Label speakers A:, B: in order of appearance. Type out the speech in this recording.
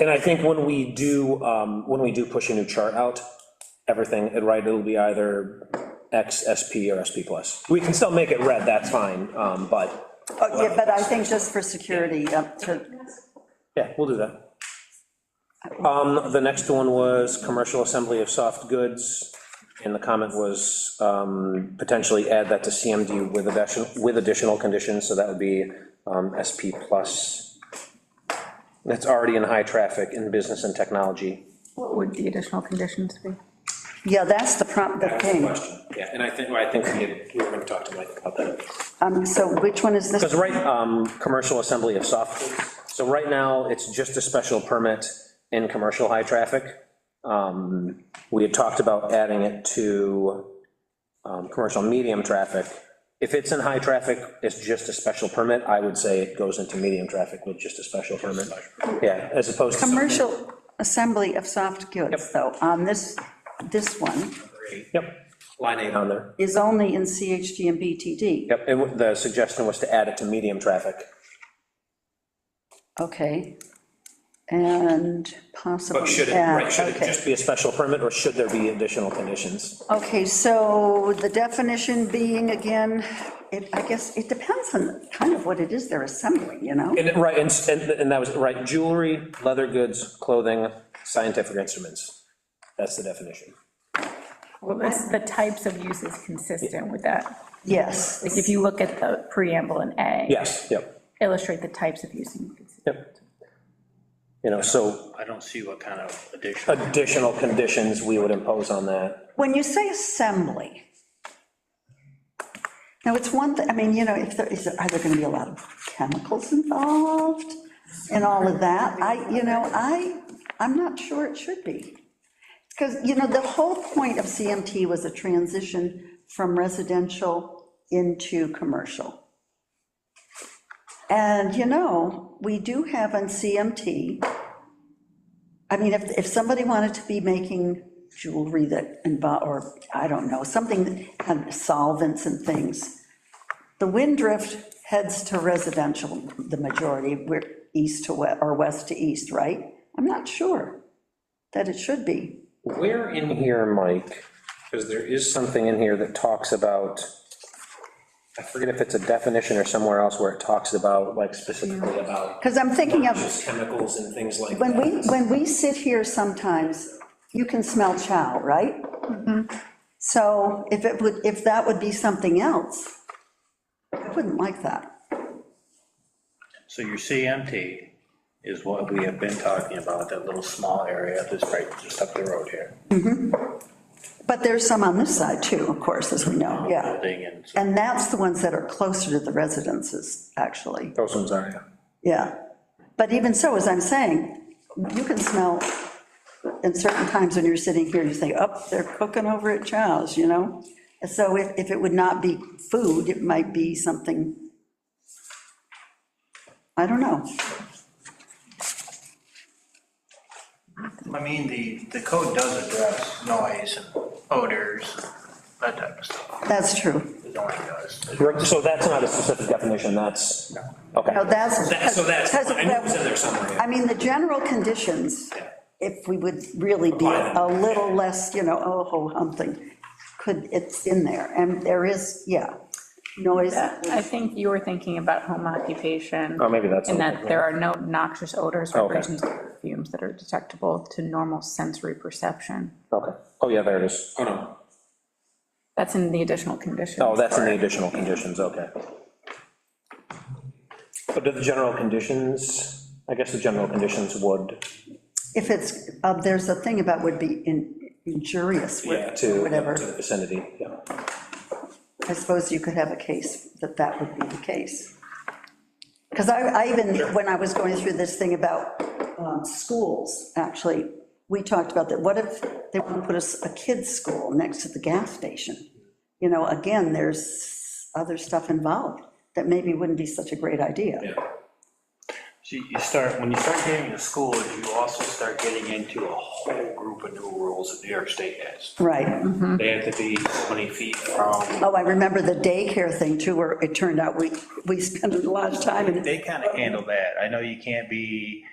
A: And I think when we do, um, when we do push a new chart out, everything, it right, it'll be either X, SP, or SP plus. We can still make it red, that's fine, um, but,
B: Oh, Yeah, but I think just for security, uh, to,
A: yeah, we'll do that. Um, the next one was commercial assembly of soft goods, and the comment was, um, potentially add that to CMD with additional, with additional conditions, so that would be, um, SP plus. That's already in high traffic in business and technology.
C: What would the additional conditions be?
B: yeah, that's the prompt, the
A: That's the
B: thing.
A: question, yeah, and I think, well, I think we did, we were gonna talk to Mike about that.
B: Um, so which one is
A: Because
B: this?
A: right, um, commercial assembly of soft goods, so right now, it's just a special permit in commercial high traffic. Um, We had talked about adding it to, um, commercial medium traffic. If it's in high traffic, it's just a special permit, I would say it goes into medium traffic with just a special permit. Yeah, as opposed to. something-
B: Commercial assembly of soft goods, though, on this, this one
A: Yep, line eight on there.
B: is only in CHG and BTD.
A: Yep, and w- the suggestion was to add it to medium traffic.
B: Okay. And possibly.
A: But should it,
B: add-
A: right, should it
B: okay.
A: just be a special permit, or should there be additional conditions?
B: Okay, so the definition being, again, it, I guess, it depends on kind of what it is they're assembling, you know?
A: And, it- right, and, s- and and that was, right, jewelry, leather goods, clothing, scientific instruments. That's the definition.
C: Well, this- the types of use is consistent with that.
B: Yes,
C: Like, if you look at the preamble in A.
A: Yes, yep,
C: Illustrate the types of use. and consist-
A: yep. You know, so
D: I don't see what kind of addition.
A: additional conditions we would impose on that.
B: when you say assembly, now, it's one, thing. I mean, you know, if there, is, there- are there gonna be a lot of chemicals involved and all of that? I, you know, I, I'm not sure it should be. Because, you know, the whole point of CMT was a transition from residential into commercial. And, you know, we do have on CMT, I mean, if, if somebody wanted to be making jewelry that, invo- or, I don't know, something, that had solvents and things, the wind drift heads to residential, the majority, we're east to, we- or west to east, right? I'm not sure that it should be.
A: Where in here, Mike, because there is something in here that talks about, I forget if it's a definition or somewhere else where it talks about, like specifically about
B: Because I'm thinking of.
A: just chemicals and things like
B: When we,
A: that.
B: when we sit here sometimes, you can smell chow, right? So if it would, if that would be something else, I wouldn't like that.
D: So your CMT is what we have been talking about, that little small area that's right just up the road here.
B: But there's some on this side too, of course, as we know, yeah.
D: Building and, so-
B: And that's the ones that are closer to the residences, actually,
A: Those ones are, yeah.
B: yeah. But even so, as I'm saying, you can smell, in certain times when you're sitting here, you say, oh, they're cooking over at Chow's, you know? So if, if it would not be food, it might be something, I don't know.
E: I mean, the, the code does address noise and odors, that type of stuff,
B: That's true.
E: the noise does.
A: So that's not a specific definition, that's, okay.
B: No, that's.
A: That- So that's,
B: because-
A: I knew it was in there somewhere.
B: I mean, the general conditions, if we would really be
A: Apply
B: a
A: them.
B: little less, you know, oh, ho, humping, could, it's in there, and there is, yeah, noise.
C: I think you were thinking about home occupation.
A: Oh, maybe that's
C: And
A: something,
C: that
A: yeah.
C: there are no noxious odors,
A: Oh, Okay.
C: vibrations, or fumes that are detectable to normal sensory perception.
A: Okay, oh, yeah, there it is. Oh, no.
C: That's in the additional conditions.
A: Oh, that's in the additional conditions, okay. But do the general conditions, I guess the general conditions would,
B: If it's, uh, there's a thing about would be in- injurious,
A: yeah,
B: would-
A: to, to
B: whatever,
A: the vicinity, yeah.
B: I suppose you could have a case that that would be the case. Because I, I even, when I was going through this thing about um, schools, actually, we talked about that, what if they want to put a, s- a kid's school next to the gas station? You know, again, there's other stuff involved that maybe wouldn't be such a great idea.
D: so you start, when you start getting to schools, you also start getting into a whole group of new rules that New York State has.
B: Right,
D: They have to be so many feet from,
B: oh, I remember the daycare thing too, where it turned out we, we spent a lot of time in.
D: they kind of handle that. I know you can't be